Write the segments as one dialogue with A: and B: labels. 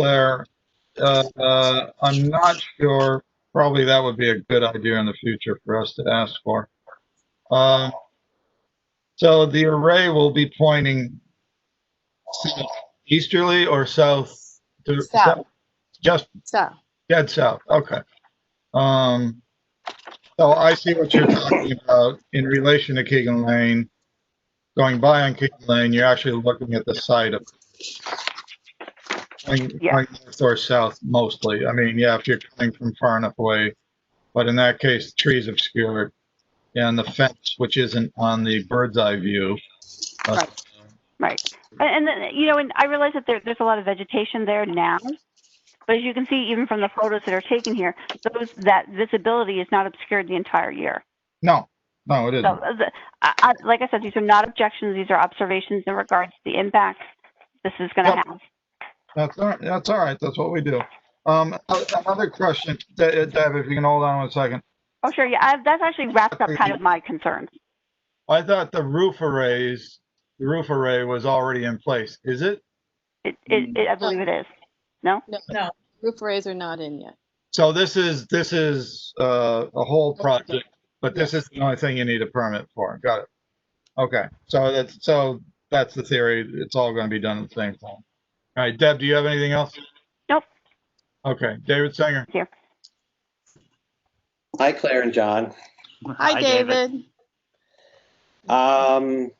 A: Claire, uh, uh, I'm not sure, probably that would be a good idea in the future for us to ask for. Um, So the array will be pointing south easterly or south? to-
B: South.
A: Just
B: So,
A: dead south, okay. Um, So I see what you're talking about in relation to Keegan Lane. Going by on Keegan Lane, you're actually looking at the side of. Going
B: Yeah.
A: going north or south mostly. I mean, yeah, if you're coming from far enough away. But in that case, trees obscure it. And the fence, which isn't on the bird's eye view. uh,
B: Right. right. And, and then, you know, and I realize that there, there's a lot of vegetation there now. But as you can see, even from the photos that are taken here, those, that visibility is not obscured the entire year.
A: No, no, it
B: So,
A: isn't.
B: uh, the, I, I, like I said, these are not objections, these are observations in regards to the impact this is gonna
A: Yep.
B: have.
A: That's all, right. that's all right. That's what we do. Um, another question, De- Deb, if you can hold on one second.
B: Oh, sure, yeah, I, that's actually wraps up kind of my concerns.
A: I thought the roof arrays, the roof array was already in place. Is it?
B: It, it, it- I believe it is.
C: Roof rays are not in yet.
A: So this is, this is, uh, a whole project, but this is the only thing you need a permit for. Got it. Okay, so that's, so that's the theory. It's all gonna be done at the same time. All right, Deb, do you have anything else?
B: Nope.
A: Okay, David Singer.
D: Hi, Claire and John.
C: Hi, David.
D: Um,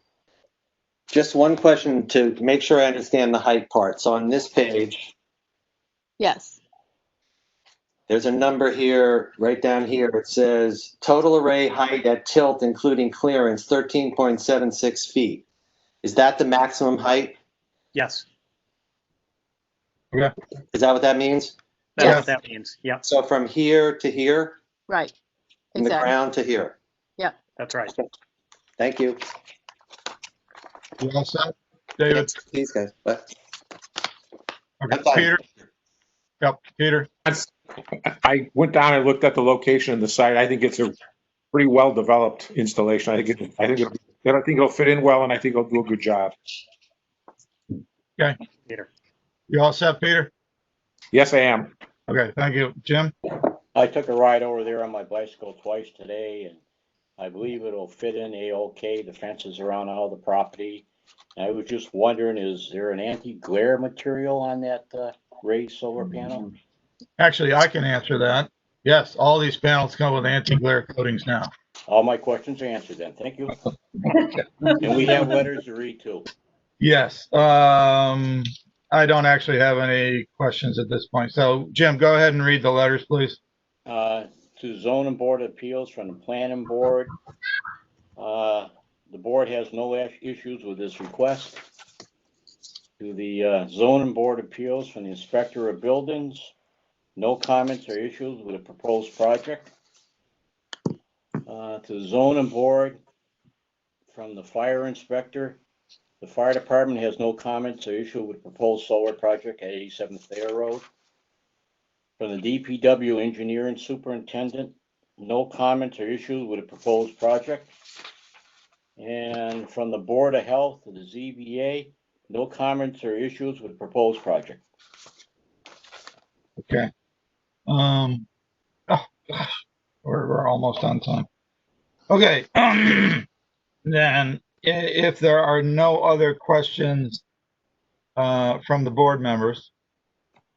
D: just one question to make sure I understand the height part. So on this page,
C: Yes,
D: there's a number here, right down here. It says total array height at tilt, including clearance, 13.76 feet. Is that the maximum height?
E: Yes,
D: Is that what that means?
E: that's
A: Yes.
E: what that means. Yep,
D: So from here to here,
C: right.
D: from the
C: Exactly.
D: ground to here.
E: that's right.
D: Thank you.
A: You all set? David?
D: These guys. But
A: Okay,
D: I'm fine.
A: Peter? Yep, Peter.
F: I went down and looked at the location of the site. I think it's a pretty well-developed installation. I think, it- I think, it'll- I think it'll fit in well and I think it'll do a good job.
E: Peter.
A: You all set, Peter?
F: Yes, I am.
A: Okay, thank you. Jim?
G: I took a ride over there on my bicycle twice today and I believe it'll fit in A-OK, the fences around all the property. And I was just wondering, is there an anti-glare material on that uh, raised solar panel?
A: Actually, I can answer that. Yes, all these panels come with anti-glare coatings now.
G: All my questions are answered then, thank you. And we have letters to read too.
A: Yes, um, I don't actually have any questions at this point. So Jim, go ahead and read the letters, please.
G: uh, to zoning board of appeals from the planning board. Uh, The board has no ash- issues with this request. To the uh, zoning board of appeals from the inspector of buildings, no comments or issues with the proposed project. Uh, To the zoning board from the fire inspector, the fire department has no comments or issue with proposed solar project at 87th Thayer Road. From the DPW engineer and superintendent, no comments or issues with the proposed project. And from the Board of Health, the ZBA, no comments or issues with the proposed project.
A: Okay. Um, oh, gosh, we're, we're almost on time. Okay. Then, i- if there are no other questions, uh, from the board members,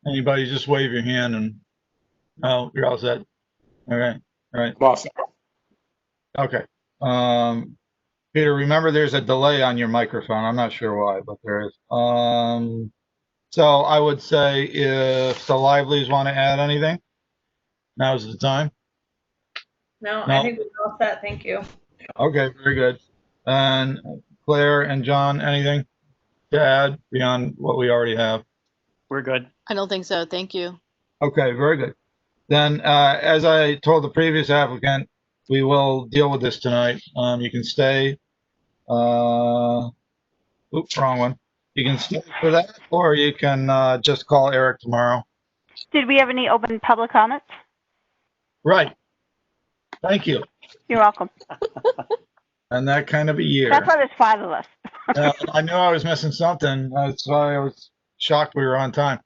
A: anybody just wave your hand and, oh, you're all set. All right, all right.
F: Boss,
A: Okay. Um, Peter, remember there's a delay on your microphone. I'm not sure why, but there is. Um, so I would say if the Livelies want to add anything, now's the time.
H: No,
A: No.
H: I think we're all set. Thank you.
A: Okay, very good. And Claire and John, anything to add beyond what we already have?
E: We're good.
C: I don't think so. Thank you.
A: Okay, very good. Then, uh, as I told the previous applicant, we will deal with this tonight. Um, you can stay. Uh, oops, wrong one. You can stay for that, or you can, uh, just call Eric tomorrow.
B: Did we have any open public comments?
A: Right. Thank you.
B: You're welcome.
A: And that kind of a year.
B: That's why there's five of us.
A: Uh, I knew I was missing something. That's why I was shocked we were on time.